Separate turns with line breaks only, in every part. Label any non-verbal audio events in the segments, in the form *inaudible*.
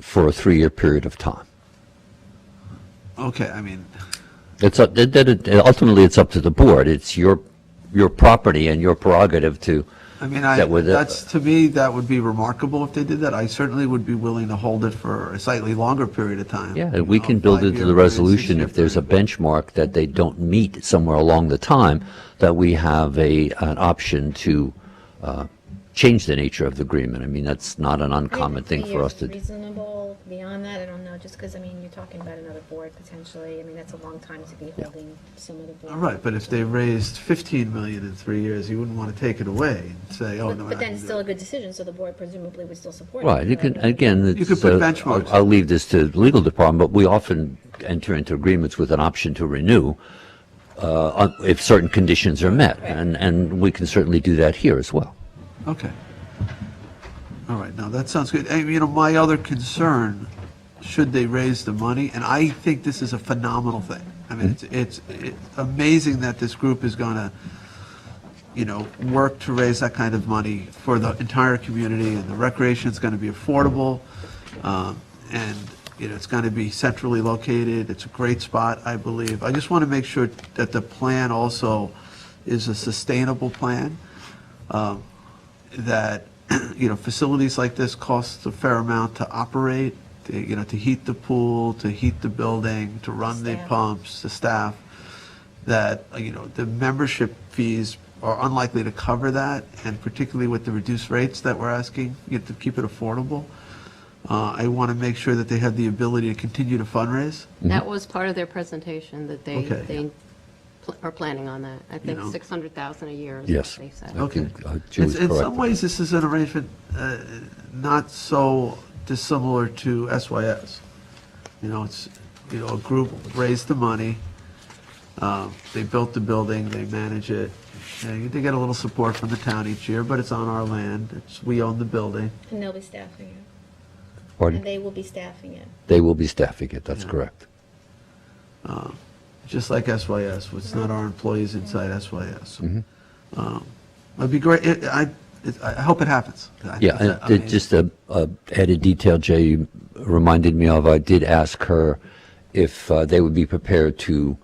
for a three-year period of time.
Okay, I mean,
It's, up- it- it- it- ultimately, it's up to the board. It's your, your property and your prerogative to,
I mean, I,
That would, uh,
that's, to me, that would be remarkable if they did that. I certainly would be willing to hold it for a slightly longer period of time.
yeah,
you
and we
know,
can build
five-year
into the
period,
resolution
six-year
if there's a
period.
benchmark that they don't meet somewhere along the time, that we have a, an option to uh, change the nature of the agreement. I mean, that's not an uncommon thing
Three
for
years
us to do.
Reasonable, beyond that, I don't know, just because, I mean, you're talking about another board potentially, I mean, that's a long time to be holding some other board.
All right, but if they raised 15 million in three years, you wouldn't want to take it away and say, oh, no.
But
we're not
but then
gonna
it's
do
still a
it.
good decision, so the board presumably would still support it.
Right, you
but-
can, again,
You could
it's,
put
uh,
benchmarks.
I'll- I'll leave this to the legal department, but we often enter into agreements with an option to renew uh, on- if certain conditions are met, and, and we can certainly do that here as well.
Okay. All right, now that sounds good. And, you know, my other concern, should they raise the money, and I think this is a phenomenal thing. I
Hmm?
mean, it's, it's it's amazing that this group is gonna, you know, work to raise that kind of money for the entire community, and the recreation's gonna be affordable, um, and, you know, it's gonna be centrally located, it's a great spot, I believe. I just wanna make sure that the plan also is a sustainable plan um, that, *clears throat* you know, facilities like this cost a fair amount to operate, to, you know, to heat the pool, to heat the building, to run the
Staff.
pumps, the staff, that, uh, you know, the membership fees are unlikely to cover that, and particularly with the reduced rates that we're asking, you have to keep it affordable. Uh, I want to make sure that they have the ability to continue to fundraise.
That was part of their presentation, that they,
Mm-hmm. Okay.
they pl- are planning on that. I think
know.
600,000 a year is
Yes.
what they said.
Okay.
Okay.
think, uh, Julie's
In in some
correct.
ways, this is an arrangement uh, not so dissimilar to SYS. You know, it's, you know, a group raised the money, um, they built the building, they manage it. And They get a little support from the town each year, but it's on our land, it's, we own the building.
And they'll be staffing it. And
Pardon?
they will be staffing it.
They will be staffing it, that's
Yeah.
correct.
just like SYS, it's not our employees inside SYS.
Mm-hmm.
Um, It'd be great, it- I, it- I hope it happens. I think
Yeah,
it's
and it-
amazing.
just a, a added detail Jay you reminded me of, I did ask her if uh, they would be prepared to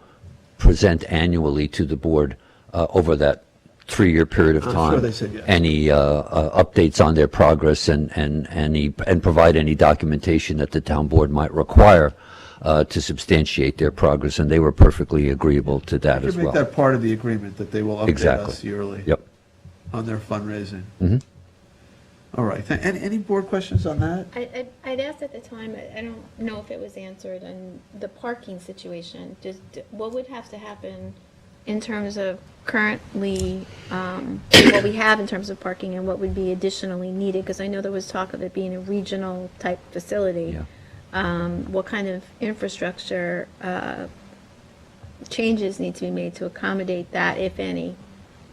present annually to the board uh, over that three-year period of
I'm
time.
Uh, sure they said yes.
Any uh, uh, updates on their progress and, and, any, and provide any documentation that the town board might require uh, to substantiate their progress, and they were perfectly agreeable to that
We
as
Should make
well.
that part of the agreement, that they will update
Exactly.
us yearly.
Yep.
On their fundraising.
Mm-hmm.
All right, Th- any, any board questions on that?
I, I'd- I'd asked at the time, I- I don't know if it was answered, and the parking situation, just what would have to happen in terms of currently, um, what we have in terms of parking and what would be additionally needed? Because I know there was talk of it being a regional type facility.
Yeah.
Um, What kind of infrastructure uh, changes need to be made to accommodate that, if any?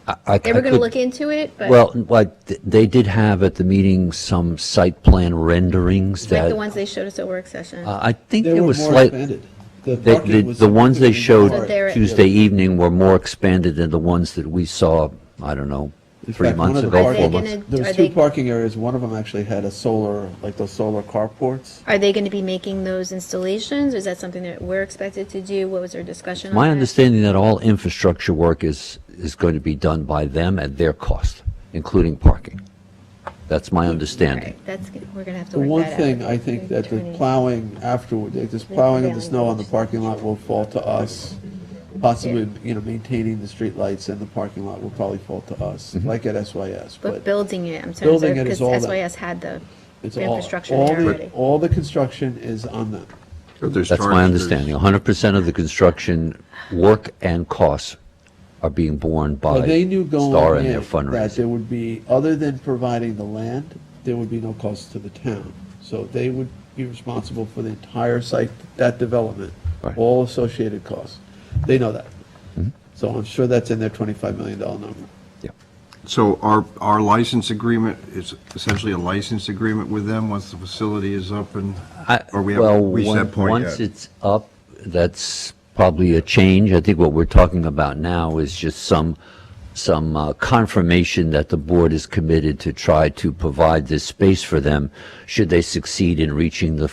I- I-
They were
I
going to
could-
look into it, but.
Well, what, th- they did have at the meeting some site plan renderings
Like
that,
the ones they showed us at work session.
Uh, I think
They
there
were
was
more
slight,
expanded.
the, the,
parking was-
the ones they
But
showed
they're-
Tuesday evening were more expanded than the ones that we saw, I don't know,
In
three
fact, one
months
of the
ago,
Are they
four
parking-
gonna-
months.
There
are
was two
they-
parking areas, one of them actually had a solar, like those solar carports.
Are they going to be making those installations? Is that something that we're expected to do? What was our discussion on
My
that?
understanding that all infrastructure work is, is going to be done by them at their cost, including parking. That's my
All
understanding.
right, that's, g- we're going to have
The
to work that
one
out.
thing
with
I
the
think that the
attorney.
plowing afterward, like this plowing of the
prevailing
snow on the
wage.
parking lot will fall to us. Possibly, you know, maintaining the streetlights and the parking lot will probably fall to us,
Mm-hmm.
like at SYS,
But building it, I'm sorry,
Building it is
because
all that-
SYS had the
It's all-
infrastructure
all
there
the-
already.
All the construction is on them.
That's my understanding. hundred percent of the construction work and costs are being borne by
But they knew
Star
going
and their
in that
fundraising.
there would be, other than providing the land, there would be no cost to the town. So they would be responsible for the entire site, that development,
Right. Mm-hmm.
all associated costs. They know that. So I'm sure that's in their $25 million number.
Yeah.
So our, our license agreement is essentially a license agreement with them once the facility is up and,
I-
or we haven't
well,
reached
on-
that point
Once
yet?
it's up, that's probably a change. I think what we're talking about now is just some, some uh, confirmation that the board is committed to try to provide this space for them should they succeed in reaching the